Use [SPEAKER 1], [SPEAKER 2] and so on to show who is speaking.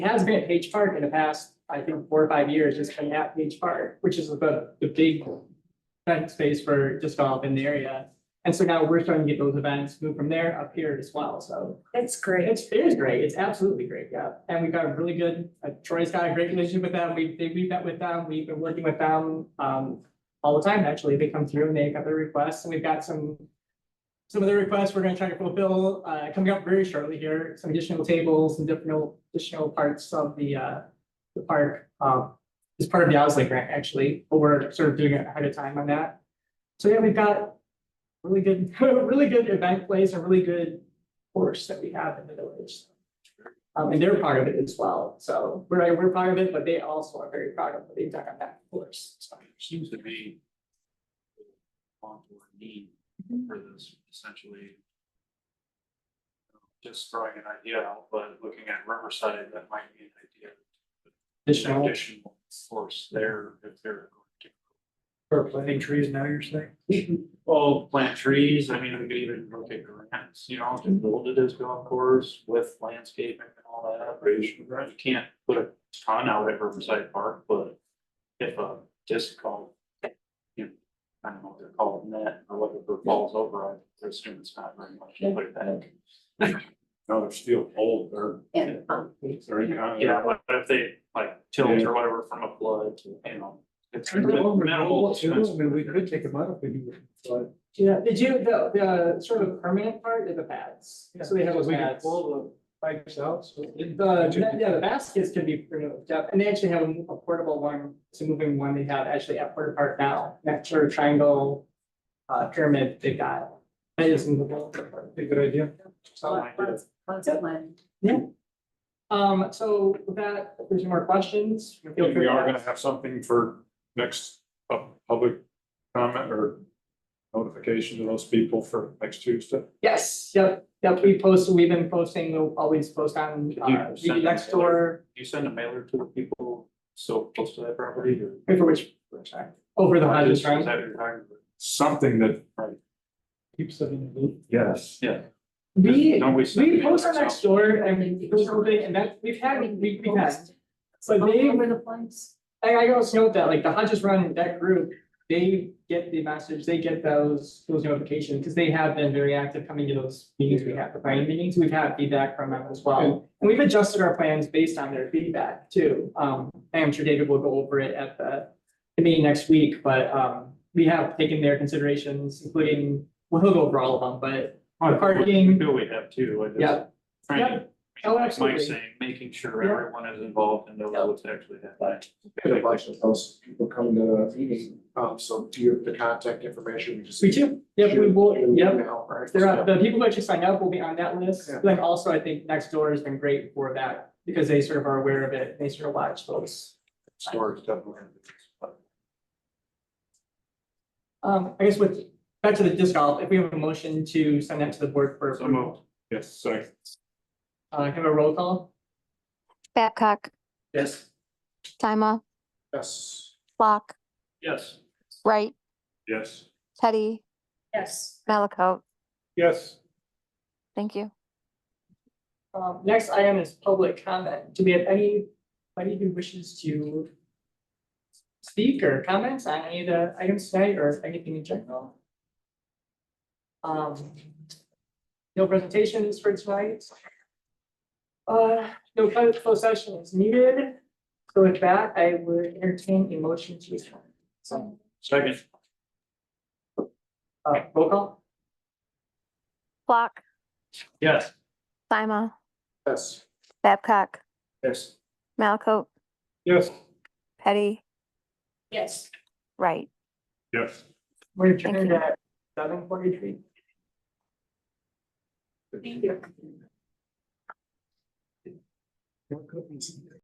[SPEAKER 1] has been at Page Park in the past, I think, four or five years, it's been at Page Park, which is the, the big event space for disc golf in the area. And so now we're starting to get those events moved from there up here as well, so
[SPEAKER 2] That's great.
[SPEAKER 1] it's, it is great, it's absolutely great, yeah, and we've got a really good, uh, Troy's got a great relationship with them, we, they, we met with them, we've been working with them, um, all the time, actually, they come through and they got their requests, and we've got some some of the requests we're gonna try to fulfill, uh, coming up very shortly here, some additional tables and different additional parts of the, uh, the park, um, is part of the Owsley grant, actually, but we're sort of doing it ahead of time on that. So, yeah, we've got really good, really good event place, a really good course that we have in the village. Um, and they're part of it as well, so we're, we're part of it, but they also are very proud of what they've done on that course, so.
[SPEAKER 3] Seems to be. Want or need for this essentially. um, Just throwing an idea out, but looking at Riverside, that might be an idea. An
[SPEAKER 1] Additional
[SPEAKER 3] Additional force there if they're.
[SPEAKER 1] for
[SPEAKER 3] Planting trees now, you're saying?
[SPEAKER 1] planning.
[SPEAKER 3] Well, plant trees, I mean, we could even look at grants, you know, to build it as golf course with landscaping and all that. You can't put a ton out at Riverside Park, but if a disc golf. You know, I don't know what they're called, net or whatever falls over, I assume it's not very much, to put it back.
[SPEAKER 4] No, they're still old, they're,
[SPEAKER 2] And, um,
[SPEAKER 4] they're in kind of-
[SPEAKER 3] Yeah, but if they like tilt or whatever from a flood, you know. It's
[SPEAKER 5] Turn it over,
[SPEAKER 3] minimal
[SPEAKER 5] You know, I
[SPEAKER 3] expense.
[SPEAKER 5] mean, we could take them out if we do, but.
[SPEAKER 1] Yeah, did you, the, the sort of permanent part of the pads, so they have those
[SPEAKER 5] We can
[SPEAKER 1] pads.
[SPEAKER 5] Pull the pipes out, so.
[SPEAKER 1] The, yeah, the baskets can be removed up, and they actually have a portable one, it's a moving one they have actually at Porter Park now, that sort of triangle. Uh, pyramid they've got, that is movable.
[SPEAKER 5] A good idea.
[SPEAKER 1] So,
[SPEAKER 2] lots- lots of land.
[SPEAKER 1] um, so with that, if there's any more questions. feel free
[SPEAKER 4] And We
[SPEAKER 1] to
[SPEAKER 4] are
[SPEAKER 1] ask.
[SPEAKER 4] gonna have something for next pub- public comment or notification to those people for next Tuesday.
[SPEAKER 1] Yes, yep, yep, we post, we've been posting, we'll always post on,
[SPEAKER 3] Could you
[SPEAKER 1] uh,
[SPEAKER 3] send
[SPEAKER 1] the
[SPEAKER 3] them
[SPEAKER 1] next
[SPEAKER 3] the alert?
[SPEAKER 1] door,
[SPEAKER 3] You send a mailer to the people so close to that property or?
[SPEAKER 1] for which, over the
[SPEAKER 3] Is
[SPEAKER 1] hundred,
[SPEAKER 3] that what
[SPEAKER 1] right?
[SPEAKER 3] you're talking about?
[SPEAKER 4] Something that,
[SPEAKER 5] Keeps them in the loop.
[SPEAKER 4] yes.
[SPEAKER 1] We,
[SPEAKER 3] Don't we send
[SPEAKER 1] we
[SPEAKER 3] it
[SPEAKER 1] post on
[SPEAKER 3] ourselves?
[SPEAKER 1] next door and post everything, and that, we've had, we, we've had. So
[SPEAKER 2] All
[SPEAKER 1] they,
[SPEAKER 2] over the place.
[SPEAKER 1] I, I always note that, like, the Hodges Run and that group, they get the message, they get those, those notifications, because they have been very active coming to those meetings, we have the planning meetings, we've had feedback from them as well. And we've adjusted our plans based on their feedback too, um, I'm sure David will go over it at the, the meeting next week, but, um, we have taken their considerations, including, well, he'll go over all of them, but
[SPEAKER 3] Oh,
[SPEAKER 1] Parking.
[SPEAKER 3] Do we have too? I just-
[SPEAKER 1] Yeah.
[SPEAKER 3] Trying to,
[SPEAKER 1] Oh,
[SPEAKER 3] like
[SPEAKER 1] absolutely.
[SPEAKER 3] Mike's saying, making sure
[SPEAKER 1] Yeah.
[SPEAKER 3] everyone is involved and knows
[SPEAKER 1] Yeah.
[SPEAKER 3] what's actually happening.
[SPEAKER 6] Get a bunch of those people coming to the meeting, um, so do you have the contact information? You just-
[SPEAKER 1] we do, yeah, we will,
[SPEAKER 6] Shoot an
[SPEAKER 1] yeah.
[SPEAKER 6] email, right?
[SPEAKER 1] There are, the people who actually sign up will be on that list,
[SPEAKER 6] Yeah.
[SPEAKER 1] then also I think Nextdoor has been great for that, because they sort of are aware of it, they sort of watch those.
[SPEAKER 3] Storage definitely.
[SPEAKER 1] Um, I guess with, back to the disc golf, if we have a motion to send that to the board for
[SPEAKER 3] So moved.
[SPEAKER 1] approval,
[SPEAKER 4] Yes, so
[SPEAKER 1] uh, can I have a roll call?
[SPEAKER 7] Babcock,
[SPEAKER 1] Yes.
[SPEAKER 7] Sima,
[SPEAKER 6] Yes,
[SPEAKER 7] Flock,
[SPEAKER 3] Yes.
[SPEAKER 7] Wright,
[SPEAKER 4] yes.
[SPEAKER 7] Teddy,
[SPEAKER 2] Yes.
[SPEAKER 7] Malaco.
[SPEAKER 4] Yes.
[SPEAKER 7] Thank you.
[SPEAKER 1] Um, next item is public comment, do we have any, anybody who wishes to speak or comment on any of the items tonight, or anything in general? Um, no presentations for tonight. Uh, no closed closed session is needed, so with that, I would entertain a motion to adjourn. So,
[SPEAKER 3] Second.
[SPEAKER 1] uh, roll call?
[SPEAKER 7] Flock,
[SPEAKER 3] Yes.
[SPEAKER 7] Sima,
[SPEAKER 6] yes.
[SPEAKER 7] Babcock,
[SPEAKER 6] Yes.
[SPEAKER 7] Malaco,
[SPEAKER 4] Yes.
[SPEAKER 7] Teddy,
[SPEAKER 1] Yes.
[SPEAKER 7] Wright.
[SPEAKER 4] Yes.
[SPEAKER 1] We're
[SPEAKER 7] Thank
[SPEAKER 1] adjourned
[SPEAKER 7] you.
[SPEAKER 1] at seven forty-three.
[SPEAKER 2] Thank you.